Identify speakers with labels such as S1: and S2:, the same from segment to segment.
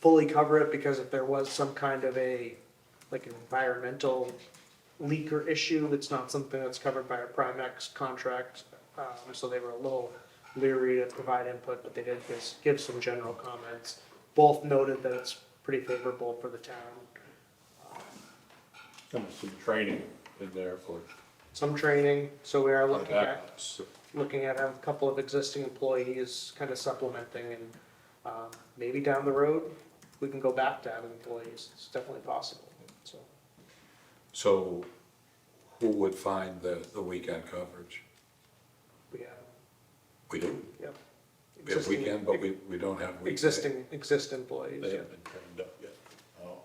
S1: fully cover it because if there was some kind of a, like an environmental leak or issue, it's not something that's covered by a Primex contract. Um, so they were a little leery to provide input, but they did just give some general comments. Both noted that it's pretty favorable for the town.
S2: And some training in there for
S1: Some training, so we are looking at
S2: that. So-
S1: looking at a couple of existing employees kind of supplementing and um, maybe down the road, we can go back to having employees. It's definitely possible, so.
S3: So who would find the, the weekend coverage?
S1: We have,
S3: We do.
S1: yep.
S3: We have
S1: Existing-
S3: weekend, but we, we don't have weekday.
S1: Existing, existing employees,
S2: They
S1: yeah.
S2: haven't been trained up yet. Oh,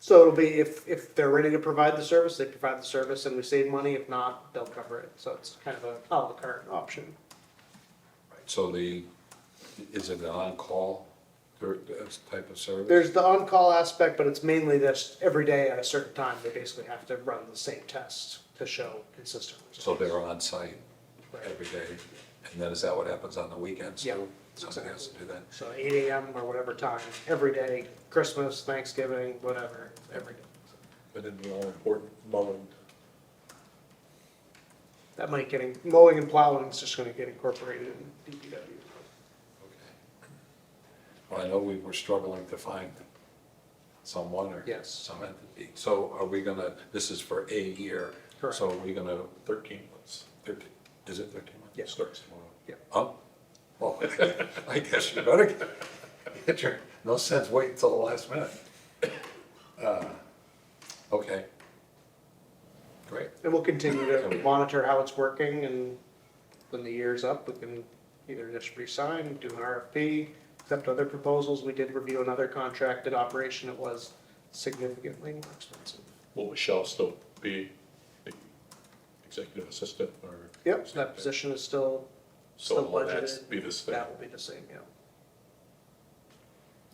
S1: So it'll be, if, if they're ready to provide the service, they provide the service and we save money. If not, they'll cover it. So it's kind of a à la carte option.
S3: So the, is it an on-call, or this type of service?
S1: There's the on-call aspect, but it's mainly this, every day at a certain time, they basically have to run the same test to show consistently.
S3: So they're on site
S1: Right.
S3: every day, and then is that what happens on the weekends?
S1: Yeah.
S3: too? Somebody has to do that.
S1: So eight AM or whatever time, every day, Christmas, Thanksgiving, whatever, every day.
S2: But in the all important mowing,
S1: That might getting, mowing and plowing is just gonna get incorporated in DPW.
S3: Well, I know we were struggling to find someone or
S1: Yes.
S3: some entity. So are we gonna, this is for a year.
S1: Correct.
S3: So are we gonna,
S2: thirteen months.
S3: thirteen, is it thirteen months?
S1: Yeah.
S2: Starts tomorrow.
S3: Huh? Oh. Well, I guess you better get- get your, no sense waiting until the last minute. Uh, Okay. Great.
S1: And we'll continue to monitor how it's working and when the year's up, we can either just resign, do an RFP, accept other proposals. We did review another contracted operation. It was significantly more expensive.
S2: Will Michelle still be the executive assistant or?
S1: Yep, so that position is still,
S2: So
S1: still
S2: will that
S1: budgeted.
S2: be this thing?
S1: that will be the same, yeah.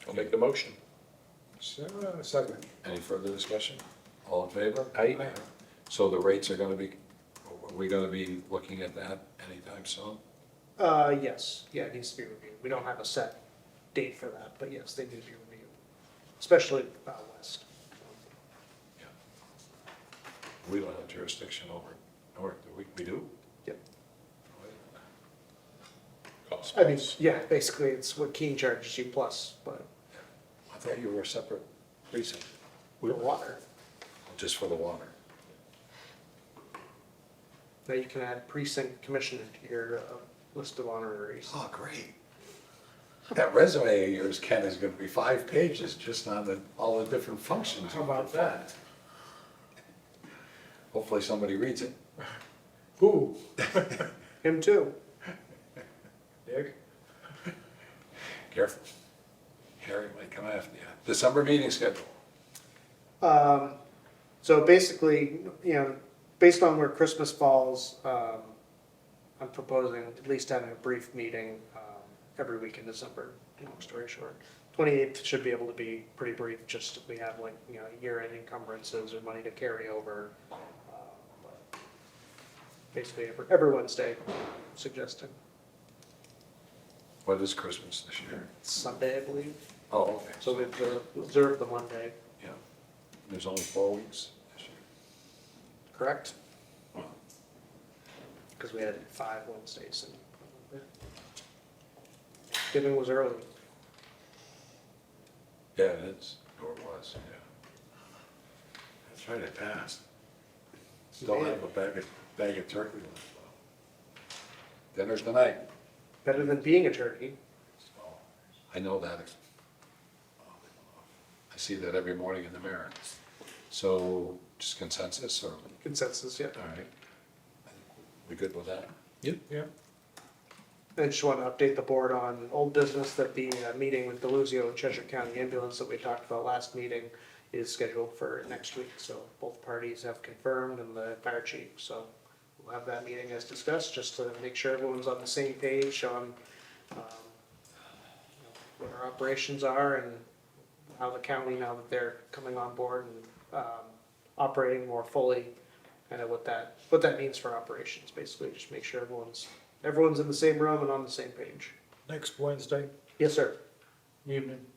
S2: I'll make the motion.
S3: Second. Any further discussion? All in favor?
S2: Aye.
S3: So the rates are gonna be, are we gonna be looking at that anytime soon?
S1: Uh, yes, yeah, it needs to be reviewed. We don't have a set date for that, but yes, they need to be reviewed, especially out west.
S3: We don't have jurisdiction over, or do we, we do?
S1: Yep.
S2: Cost
S1: I mean,
S2: plus.
S1: yeah, basically, it's what Keene charges you plus, but
S3: I thought you were a separate precinct,
S1: the water.
S3: just for the water.
S1: Now you can add precinct commissioner to your uh, list of honoraries.
S3: Oh, great. That resume of yours, Ken, is gonna be five pages just on the, all the different functions. How about that? Hopefully somebody reads it.
S2: Who?
S1: Him too.
S2: Dick?
S3: Careful. Harry might come after you. December meeting schedule.
S1: Um, so basically, you know, based on where Christmas falls, um, I'm proposing at least having a brief meeting, um, every week in December, long story short. Twenty-eighth should be able to be pretty brief, just if we have like, you know, year-end encumbrances or money to carry over. um, but Basically, every, every Wednesday, suggesting
S3: What is Christmas this year?
S1: Sunday, I believe,
S3: Oh, okay.
S1: so we observe, observe the Monday,
S3: Yeah. There's only four weeks this year.
S1: correct? Because we had five Wednesdays and Thanksgiving was early.
S3: Yeah, it is. Or it was, yeah. That's right, it passed. Still have a bag of, bag of turkey left. though. Dinner's tonight.
S1: Better than being a turkey.
S3: I know that. I see that every morning in the mirror. So just consensus or, all
S1: Consensus, yeah.
S3: right. We good with that?
S2: Yeah.
S1: I just want to update the board on old business that the uh, meeting with Deluzio and Cheshire County Ambulance that we talked about last meeting is scheduled for next week. So both parties have confirmed and the fire chief. So we'll have that meeting as discussed, just to make sure everyone's on the same page on um, you know, what our operations are and how the county, now that they're coming on board and um, operating more fully, kind of what that, what that means for operations, basically. Just make sure everyone's Everyone's in the same room and on the same page.
S4: Next Wednesday,
S1: Yes, sir.
S2: Evening.